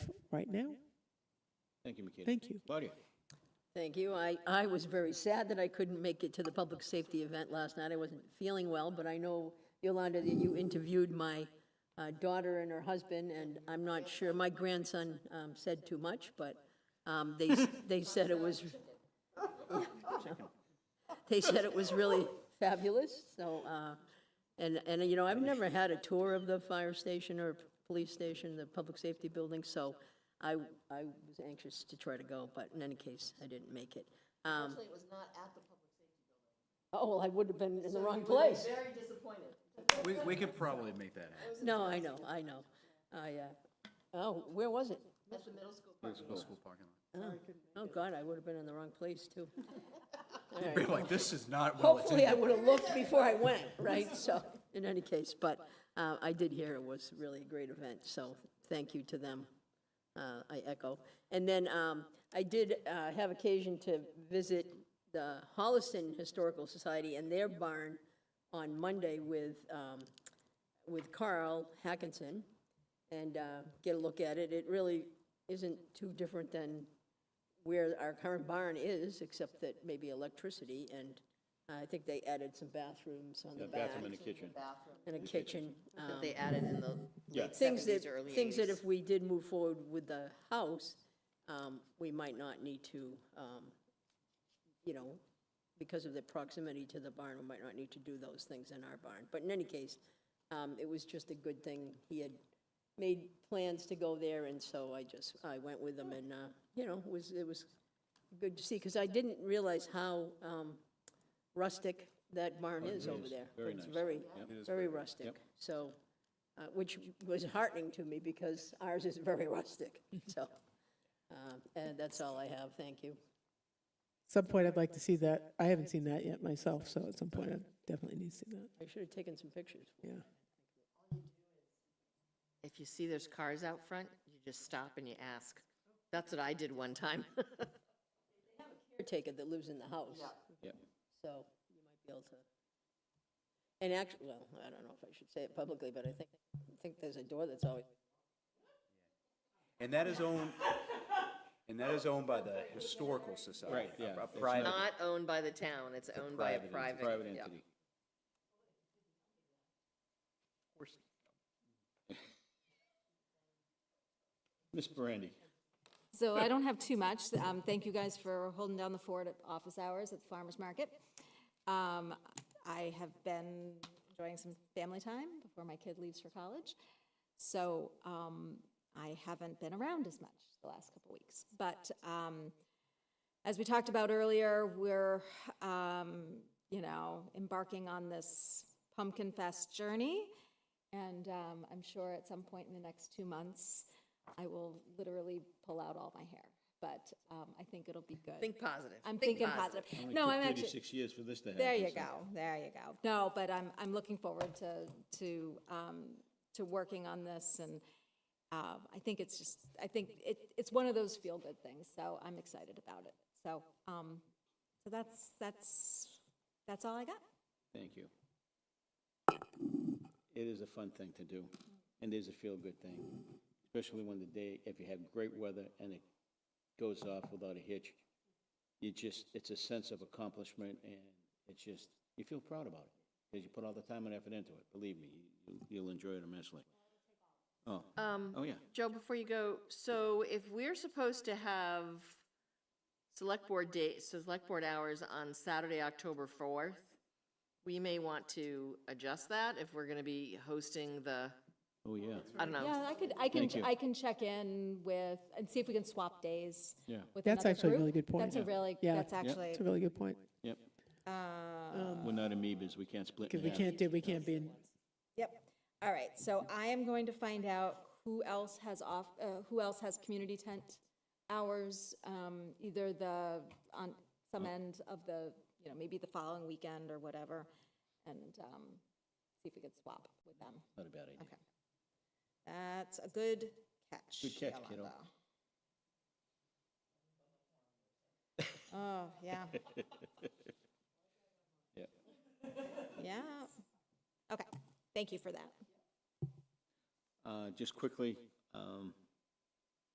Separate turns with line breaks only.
right now.
Thank you, Makita.
Thank you.
Claudia?
Thank you. I, I was very sad that I couldn't make it to the public safety event last night. I wasn't feeling well, but I know, Yolanda, that you interviewed my uh, daughter and her husband, and I'm not sure, my grandson um, said too much, but um, they, they said it was, they said it was really fabulous, so, uh, and, and, you know, I've never had a tour of the fire station or police station, the public safety building, so I, I was anxious to try to go, but in any case, I didn't make it. Um,
Actually, it was not at the public safety building.
Oh, well, I would have been in the
So
wrong
you would have
place.
been Very disappointed.
We, we could probably make that happen.
No, I know, I know. I, uh, oh, where was it?
At the middle school.
School parking lot.
Oh, God, I would have been in the wrong place, too.
We're like, this is not well
Hopefully, I
attended.
would have looked before I went, right? So, in any case, but uh, I did hear it was really a great event, so thank you to them. uh, I echo. And then um, I did uh, have occasion to visit the Holliston Historical Society and their barn on Monday with, um, with Carl Hackinson and uh, get a look at it. It really isn't too different than where our current barn is, except that maybe electricity, and I think they added some bathrooms on the back
Bathroom and a kitchen.
and a kitchen. um,
They added in the
Yeah.
late
things that,
seventies, early eighties.
things that if we did move forward with the house, um, we might not need to, um, you know, because of the proximity to the barn, we might not need to do those things in our barn. But in any case, um, it was just a good thing. He had made plans to go there, and so I just, I went with him, and, uh, you know, it was, it was good to see, because I didn't realize how um, rustic that barn is over there.
Oh, Very
It's
nice.
very,
Yep. It
very rustic.
Yep.
So, uh, which was heartening to me, because ours is very rustic, so. uh, And that's all I have, thank you.
Some point, I'd like to see that. I haven't seen that yet myself, so at some point, I definitely need to see that.
I should have taken some pictures.
Yeah.
If you see there's cars out front, you just stop and you ask. That's what I did one time.
Caretaker that lives in the house,
Yep.
so you might be able to. And actually, well, I don't know if I should say it publicly, but I think, I think there's a door that's always
And that is owned, and that is owned by the Historical Society.
Right, yeah,
a- A
that's
private,
Not owned by the town, it's owned by a private.
Private
yeah.
entity. Ms. Brandy?
So I don't have too much. Um, Thank you guys for holding down the fort at office hours at the farmer's market. Um, I have been enjoying some family time before my kid leaves for college. So um, I haven't been around as much the last couple weeks. But um, as we talked about earlier, we're, um, you know, embarking on this Pumpkin Fest journey. And um, I'm sure at some point in the next two months, I will literally pull out all my hair. But um, I think it'll be good.
Think positive.
I'm thinking positive. No, I'm actually.
Thirty-six years for this to happen.
There you
so-
go, there you go. No, but I'm, I'm looking forward to, to, um, to working on this, and um, I think it's just, I think it, it's one of those feel-good things, so I'm excited about it. So, um, so that's, that's, that's all I got.
Thank you. It is a fun thing to do, and it is a feel-good thing, especially when the day, if you have great weather and it goes off without a hitch, you just, it's a sense of accomplishment, and it's just, you feel proud about it, because you put all the time and effort into it, believe me, you- you'll enjoy it immensely. Oh,
Um,
oh, yeah,
Joe, before you go, so if we're supposed to have select board dates, select board hours on Saturday, October 4th, we may want to adjust that if we're going to be hosting the,
oh, yeah,
I don't know.
Yeah, Uh, I could, I can,
Thank you.
I can check in with, and see if we can swap days
yeah,
with
That's
another
actually a
group.
really good point.
That's a really,
Yeah.
that's
Yeah.
actually,
It's a really good point.
yep.
uh,
We're not amoebas, we can't split in
Because we
half.
can't do, we can't be in,
Yep. All right, so I am going to find out who else has off, uh, who else has community tent hours, um, either the, on some end of the, you know, maybe the following weekend or whatever, and, um, see if we could swap with them.
Not a bad idea.
Okay. That's a good catch.
Good catch, kiddo.
Yolanda. Oh, yeah.
Yep.
Yeah. Okay, thank you for that.
Uh, Just quickly, um,